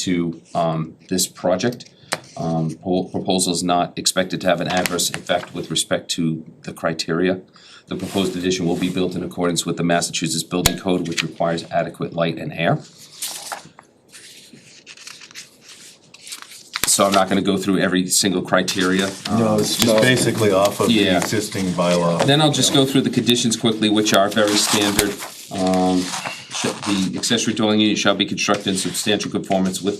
to um this project. Um pro- proposal's not expected to have an adverse effect with respect to the criteria. The proposed addition will be built in accordance with the Massachusetts Building Code, which requires adequate light and air. So I'm not gonna go through every single criteria. No, it's Um, just basically off of the Yeah. existing bylaw. Then I'll just go through the conditions quickly, which are very standard. Um, sh- the accessory dwelling unit shall be constructed in substantial conformance with,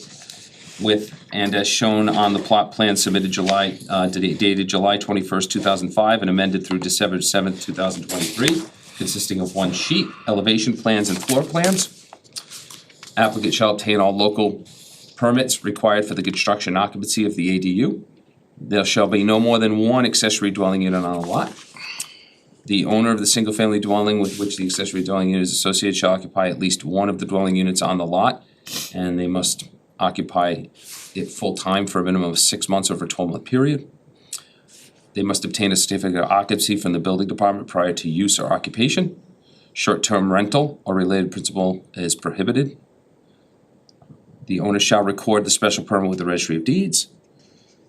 with, and as shown on the plot plan submitted July, uh, dated dated July twenty-first, two thousand five, and amended through December seventh, two thousand twenty-three, consisting of one sheet, elevation plans and floor plans. Applicant shall obtain all local permits required for the construction occupancy of the ADU. There shall be no more than one accessory dwelling unit on a lot. The owner of the single-family dwelling with which the accessory dwelling unit is associated shall occupy at least one of the dwelling units on the lot, and they must occupy it full-time for a minimum of six months over a twelve-month period. They must obtain a certificate of occupancy from the building department prior to use or occupation. Short-term rental or related principal is prohibited. The owner shall record the special permit with the registry of deeds.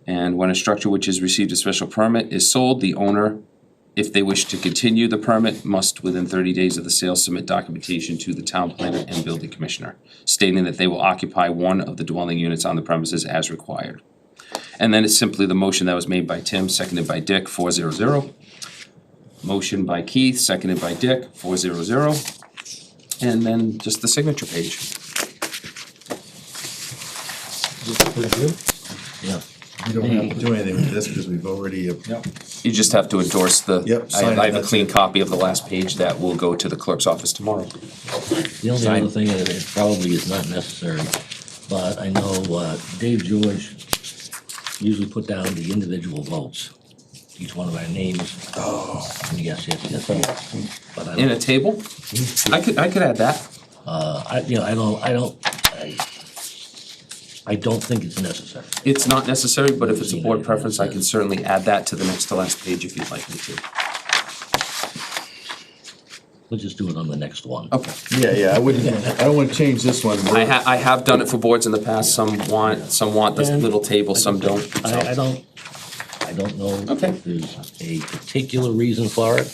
And when a structure which has received a special permit is sold, the owner if they wish to continue the permit, must within thirty days of the sale submit documentation to the town planner and building commissioner, stating that they will occupy one of the dwelling units on the premises as required. And then it's simply the motion that was made by Tim, seconded by Dick, four zero zero. Motion by Keith, seconded by Dick, four zero zero. And then just the signature page. Yeah. You don't have to do anything with this because we've already, uh, You just have to endorse the, Yep, I sign it, I have a that's clean it. copy of the last page that will go to the clerk's office tomorrow. The only Sign. other thing that it probably is not necessary, but I know uh, Dave George usually put down the individual votes, each one of our names. Oh. Yes, yes, yes, yes. But I, In a don't- table? Mm-hmm. I could, I could add that. uh, I, you know, I don't, I don't, I, I don't think it's necessary. It's not necessary, but if it's a board preference, I can certainly add that to the next to last page if you'd like me to. We'll just do it on the next one. Okay. yeah, yeah, I wouldn't, I don't want to change this one. I ha- I have done it for boards in the past, some want, some want this And- little table, some don't, so. I, I don't, I don't know Okay. if there's a particular reason for it.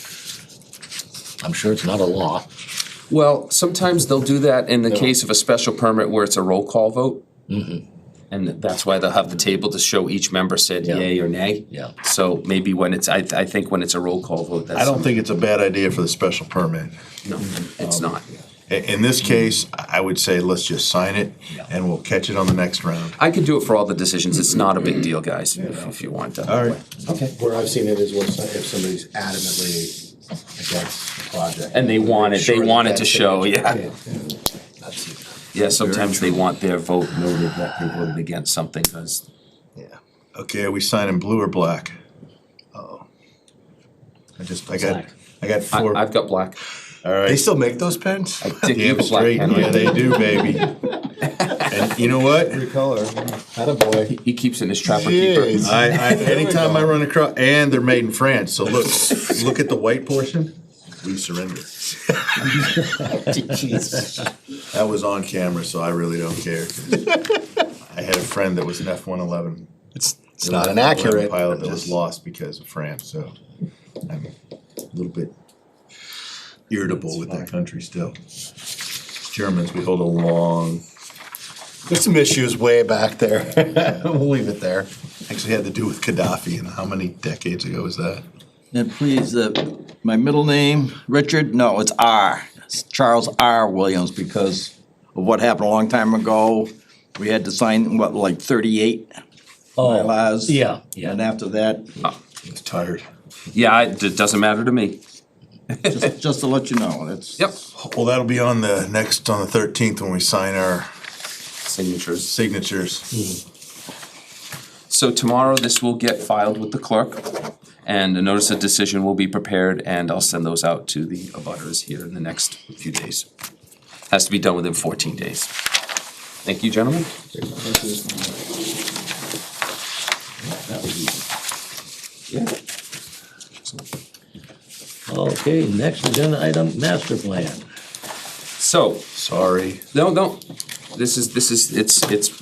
I'm sure it's not a law. Well, sometimes they'll do that in the case of a special permit where it's a roll call vote. And that's why they'll have the table to show each member said Yeah. yay or nay. Yeah. So maybe when it's, I, I think when it's a roll call vote, I that's, don't think it's a bad idea for the special permit. no, it's not. I- In this case, I would say let's just sign it Yeah. and we'll catch it on the next round. I could do it for all the decisions, it's not a big deal, guys, if if you want to. All right. Okay. Where I've seen it is when, some- if somebody's adamantly against the project. And they want it, they Sure, want it that's to show, it. yeah. That's it. Yeah, sometimes they want their vote noted that they voted against something, because Yeah. Okay, are we signing blue or black? Uh-oh. I just, I got, Black. I got I, four. I've got black. All right. They still make those pens? think you Damn have a black straight. pen, Yeah, right? they do, baby. And you know what? color. Attaboy. He keeps it in his trapper keeper. Jeez. I, I, anytime I run across, and they're made in France, so look, look at the white portion, we surrender. That was on camera, so I really don't care. I had a friend that was an F one eleven. It's, it's not inaccurate. Pilot that but was just- lost because of France, so I'm a little bit irritable with that country still. Germans, we hold a long, There's some issues way back there. We'll leave it there. actually had to do with Gaddafi, and how many decades ago was that? And please, uh, my middle name, Richard, no, it's R. It's Charles R. Williams because of what happened a long time ago. We had to sign, what, like thirty-eight Oh, bylaws? Yeah, yeah. And after that, It's tired. Yeah, I- it doesn't matter to me. just, just to let you know, it's. Yep. Well, that'll be on the next, on the thirteenth, when we sign our Signatures. signatures. So tomorrow, this will get filed with the clerk, and a notice of decision will be prepared, and I'll send those out to the abutters here in the next few days. Has to be done within fourteen days. Thank you, gentlemen. Yeah. Okay, next agenda item, master plan. So, Sorry. no, no, this is, this is, it's, it's